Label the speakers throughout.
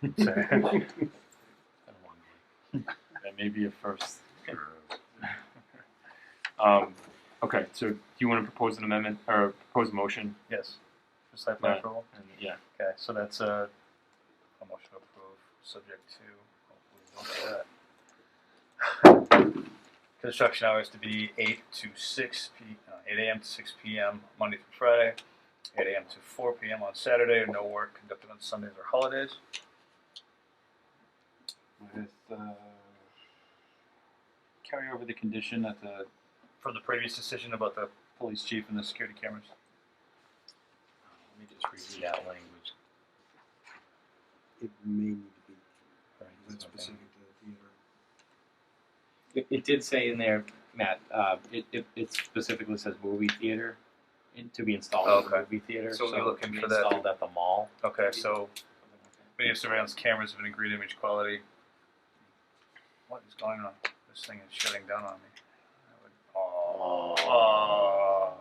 Speaker 1: fast. So, it's been a long day. That may be a first.
Speaker 2: Um, okay, so do you want to propose an amendment or propose a motion?
Speaker 1: Yes. Just that for
Speaker 2: Yeah.
Speaker 1: approval.
Speaker 2: And yeah,
Speaker 1: Okay, so that's a, a motion to approve, subject to, hopefully we don't do that. Construction hours to be eight to six P, uh, eight AM to six PM, Monday through Friday, eight AM to four PM on Saturday, no work conducted on Sundays or holidays.
Speaker 3: with uh, carry over the condition that the
Speaker 1: From the previous decision about the,
Speaker 3: police chief and the security cameras.
Speaker 1: let me just review that language.
Speaker 4: It may need to be
Speaker 1: Right,
Speaker 4: that
Speaker 1: that's my
Speaker 4: specific
Speaker 1: thing.
Speaker 4: to the theater.
Speaker 5: It, it did say in there, Matt, uh, it, it, it specifically says movie theater in- to be installed as
Speaker 1: Okay.
Speaker 5: a movie theater.
Speaker 1: So we're
Speaker 5: it
Speaker 1: looking
Speaker 5: can be
Speaker 1: for that.
Speaker 5: Installed at the mall.
Speaker 1: Okay, so video surveillance cameras of an agreed image quality. What is going on? This thing is shutting down on me. I would- Oh.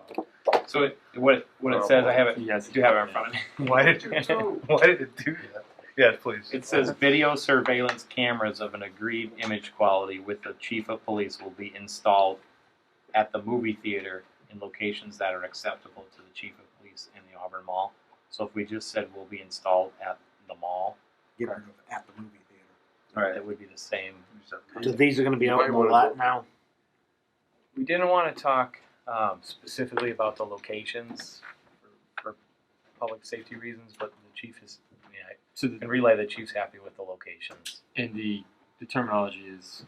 Speaker 5: So it, what it, what it says, I have it.
Speaker 2: he has
Speaker 5: I do have it in front of me.
Speaker 1: Why did you do? Why did it do that? Yeah, please.
Speaker 5: It says video surveillance cameras of an agreed image quality with the chief of police will be installed at the movie theater in locations that are acceptable to the chief of police in the Auburn Mall. So if we just said will be installed at the mall,
Speaker 4: Get rid of at the movie theater.
Speaker 5: that would be the same.
Speaker 6: So these are going to be out in the lot now.
Speaker 7: We didn't want to talk um, specifically about the locations for, for public safety reasons, but the chief is, I mean, I
Speaker 2: So the,
Speaker 7: can relay the chief's happy with the locations.
Speaker 2: and the, the terminology is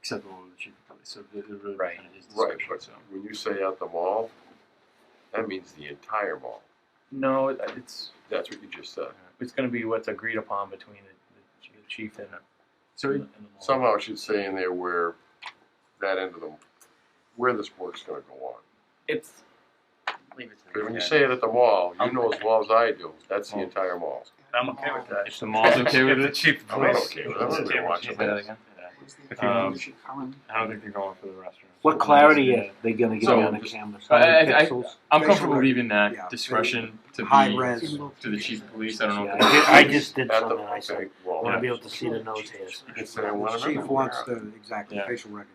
Speaker 2: acceptable to the chief of police. So it, it really
Speaker 7: Right.
Speaker 2: kind of is
Speaker 8: Right,
Speaker 2: discretion.
Speaker 8: but
Speaker 2: So
Speaker 8: when you say at the mall, that means the entire mall.
Speaker 7: No, it- it's
Speaker 8: That's what you just said.
Speaker 7: it's going to be what's agreed upon between the, the chief and,
Speaker 2: so
Speaker 7: and
Speaker 2: it,
Speaker 7: the and the mall.
Speaker 8: Somehow it should say in there where that end of the, where this work's gonna go on.
Speaker 7: it's
Speaker 5: Leave it to
Speaker 8: But when you say it at the mall, you know as well as I do, that's the entire mall.
Speaker 1: I'm okay with that.
Speaker 2: if the mall's okay with
Speaker 1: If the
Speaker 2: it,
Speaker 1: chief
Speaker 8: I'm not
Speaker 1: police-
Speaker 8: okay with that.
Speaker 1: Say
Speaker 2: Say that again.
Speaker 4: Where's the
Speaker 2: Um,
Speaker 4: other issue coming?
Speaker 2: I don't think they're going for the restaurant.
Speaker 6: What clarity are they going to get
Speaker 8: So,
Speaker 6: on the
Speaker 8: just-
Speaker 6: cameras?
Speaker 2: I- I- I-
Speaker 6: Pixels?
Speaker 2: I'm
Speaker 4: Facial
Speaker 2: comfortable
Speaker 4: rec-
Speaker 2: leaving that
Speaker 4: yeah,
Speaker 2: discretion to
Speaker 4: High
Speaker 2: be
Speaker 4: res.
Speaker 2: to the chief of police. I don't know.
Speaker 6: Yeah,
Speaker 2: if
Speaker 6: I,
Speaker 2: they-
Speaker 6: did, I just did
Speaker 8: At the,
Speaker 6: something. I said,
Speaker 8: okay,
Speaker 6: I want to
Speaker 8: well,
Speaker 6: be able to see the nose hairs.
Speaker 8: it's in one
Speaker 4: The chief
Speaker 8: amendment.
Speaker 4: wants the exactly
Speaker 2: Yeah.
Speaker 4: facial recognition.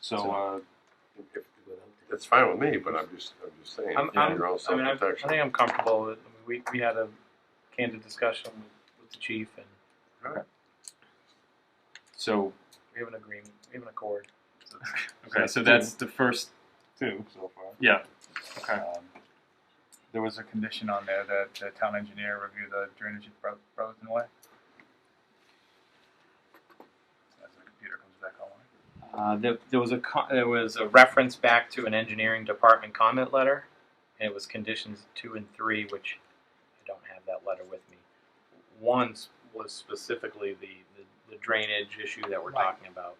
Speaker 2: So uh,
Speaker 8: If- It's fine with me, but I'm just, I'm just saying,
Speaker 7: I'm- I'm-
Speaker 8: you're all
Speaker 7: I mean, I, I
Speaker 8: self-protection.
Speaker 7: think I'm comfortable with, I mean, we, we had a candid discussion with, with the chief and
Speaker 2: so
Speaker 7: we have an agreement, we have an accord.
Speaker 2: okay. So that's the first.
Speaker 1: Two so far.
Speaker 2: Yeah. Okay.
Speaker 1: Um, There was a condition on there that the town engineer review the drainage of Bro- Brotherton Way. As the computer comes back online.
Speaker 5: Uh, there, there was a co- there was a reference back to an engineering department comment letter, and it was conditions two and three, which I don't have that letter with me. One s- was specifically the, the, the drainage issue that we're
Speaker 6: Right.
Speaker 5: talking about.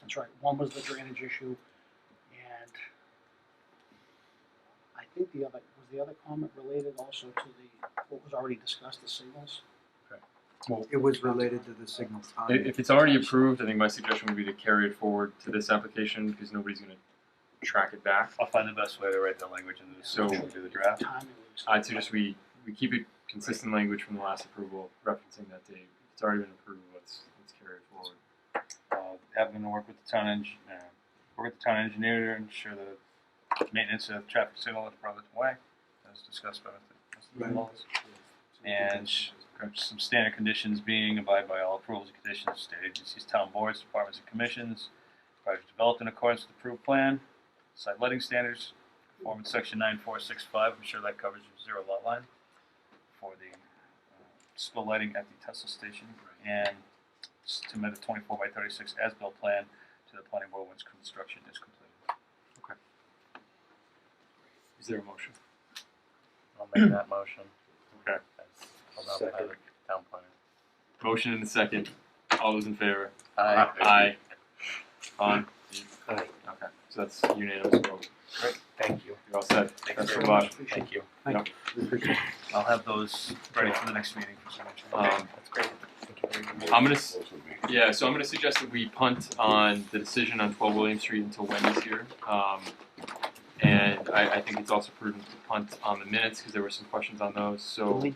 Speaker 6: That's right. One was the drainage issue, and I think the other, was the other comment related also to the, what was already discussed, the signals?
Speaker 4: It was related to the signal
Speaker 2: I-
Speaker 4: timing.
Speaker 2: If it's already approved, I think my suggestion would be to carry it forward to this application because nobody's going to track it back.
Speaker 1: I'll find the best way to write that language into the
Speaker 2: So-
Speaker 1: do the draft.
Speaker 6: Timing was-
Speaker 2: I'd suggest we, we keep it consistent language from the last approval, referencing that date. If it's already been approved, let's, let's carry it forward.
Speaker 1: Uh, have them work with the town eng, uh, work with the town engineer to ensure the maintenance of traffic signal at Brotherton Way, as discussed by Mr.
Speaker 4: Right.
Speaker 1: Mullins. And sh- uh, some standard conditions being abide by all approvals and conditions of state agencies, town boards, departments and commissions. Project developed in accordance with approved plan, site lighting standards, conform with section nine four six five, I'm sure that covers your zero lot line. For the uh, spill lighting at the Tesla station and submit a twenty-four by thirty-six as-built plan to the planning board once construction is completed.
Speaker 2: Is there a motion?
Speaker 7: I'll make that motion.
Speaker 2: Okay.
Speaker 7: I'll not have a town planner.
Speaker 2: Motion and a second. All those in favor?
Speaker 8: Aye.
Speaker 2: Aye. On? Okay, so that's unanimous vote.
Speaker 7: Thank you.
Speaker 2: You're all set.
Speaker 7: Thanks
Speaker 2: Best
Speaker 7: very
Speaker 2: of
Speaker 7: much.
Speaker 2: luck.
Speaker 7: Thank you.
Speaker 1: I'll have those ready for the next meeting for signature.
Speaker 2: Um,
Speaker 7: That's great. Thank you very much.
Speaker 2: I'm gonna s- Yeah, so I'm gonna suggest that we punt on the decision on twelve William Street until Wendy's here. Um, and I, I think it's also prudent to punt on the minutes, cause there were some questions on those, so.
Speaker 6: Did we